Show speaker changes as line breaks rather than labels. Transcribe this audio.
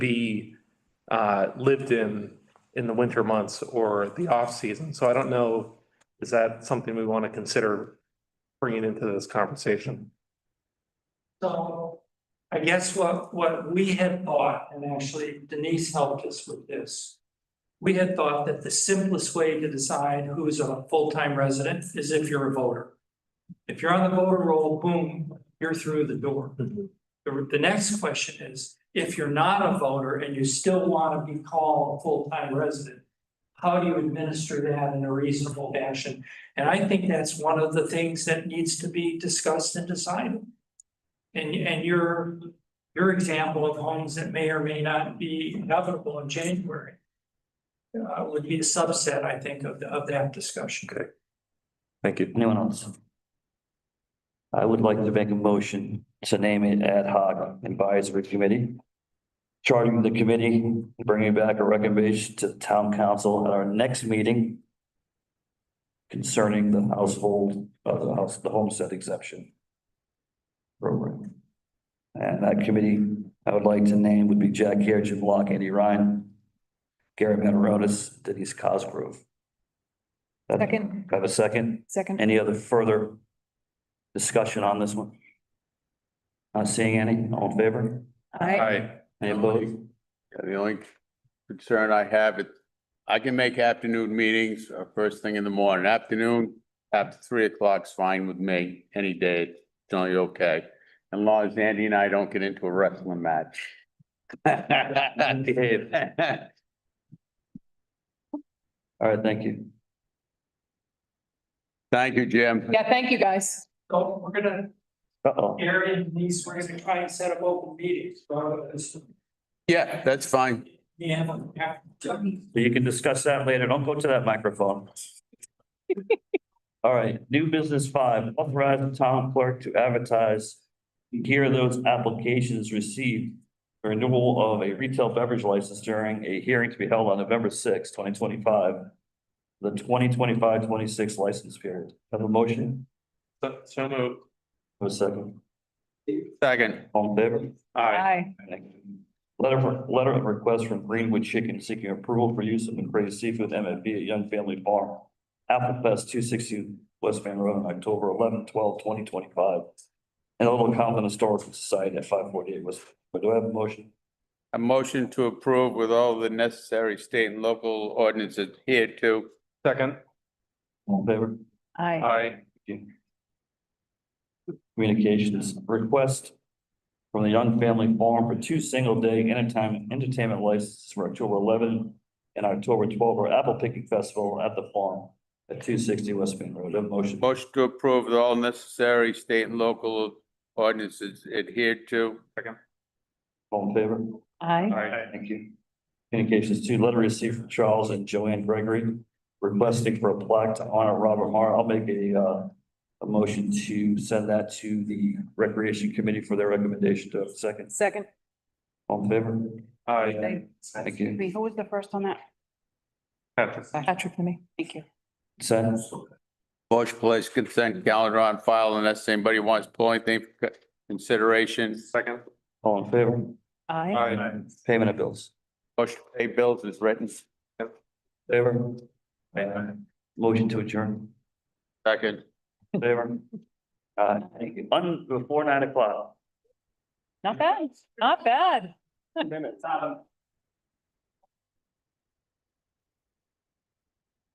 be uh, lived in in the winter months or the off-season. So I don't know, is that something we want to consider bringing into this conversation?
So I guess what, what we had thought, and actually Denise helped us with this. We had thought that the simplest way to decide who's a full-time resident is if you're a voter. If you're on the voter roll, boom, you're through the door.
Mhm.
The, the next question is, if you're not a voter and you still want to be called a full-time resident, how do you administer that in a reasonable fashion? And I think that's one of the things that needs to be discussed and decided. And, and your, your example of homes that may or may not be inevitable in January. Uh, would be a subset, I think, of, the- of that discussion.
Thank you.
Anyone else? I would like to make a motion to name it ad hoc advisory committee. Charging the committee, bringing back a recommendation to the town council at our next meeting. Concerning the household, of the house, the homestead exemption. Program. And that committee I would like to name would be Jack Care, Jim Block, Andy Ryan. Gary Mataronis, Denise Cosgrove.
Second,
Have a second?
second.
Any other further discussion on this one? Not seeing any, all in favor?
Aye.
Any opposed?
Yeah, The only concern I have, it, I can make afternoon meetings or first thing in the morning. Afternoon, after three o'clock's fine with me, any day, it's generally okay. As long as Andy and I don't get into a wrestling match.
Behave. All right, thank you.
Thank you, Jim.
Yeah, thank you, guys.
So we're gonna,
Uh-oh,
Gary and Denise, we're gonna try and set up open meetings, uh, rather than this-
Yeah, that's fine.
Yeah, but- yeah.
So you can discuss that later. Don't go to that microphone. All right, new business five, authorize the town clerk to advertise here those applications received for renewal of a retail beverage license during a hearing to be held on November sixth, twenty twenty-five. The 2025-26 license period. Have a motion?
So- So moved.
Have a second?
Second,
All in favor?
Aye.
Letter, letter of request from Greenwood Chicken seeking approval for use of McCray's Seafood MFB at Young Family Farm. Apple Fest two sixty West Van Road on October 11, 12, 2025, And Old Compton Historical Society at five forty-eight West. But do I have a motion?
a motion to approve with all the necessary state and local ordinances adhered to.
Second.
All in favor?
Aye.
Aye.
Communications request from the Young Family Farm for two single-day entertainment, entertainment licenses for October eleven and October twelve for Apple Picking Festival at the farm at two sixty West Van Road. Do I have a motion?
Motion to approve with all necessary state and local ordinances adhered to.
All in favor?
Aye.
Aye.
Thank you. Communications two, letter received from Charles and Joanne Gregory requesting for a plaque to honor Robert Mar. I'll make a, uh, a motion to send that to the Recreation Committee for their recommendation. Do I have a second?
Second.
All in favor?
Aye.
Thank you.
Wait, Who was the first on that?
Patrick.
Patrick and me.
Thank you.
Send.
Motion place consent calendar on file unless anybody wants to pull anything for co- consideration.
Second.
All in favor?
Aye.
Payment of bills.
Motion to pay bills is written.
Favor? Motion to adjourn.
Second.
Favor? Uh, thank you. Un, before nine o'clock.
Not bad, not bad.
Minutes.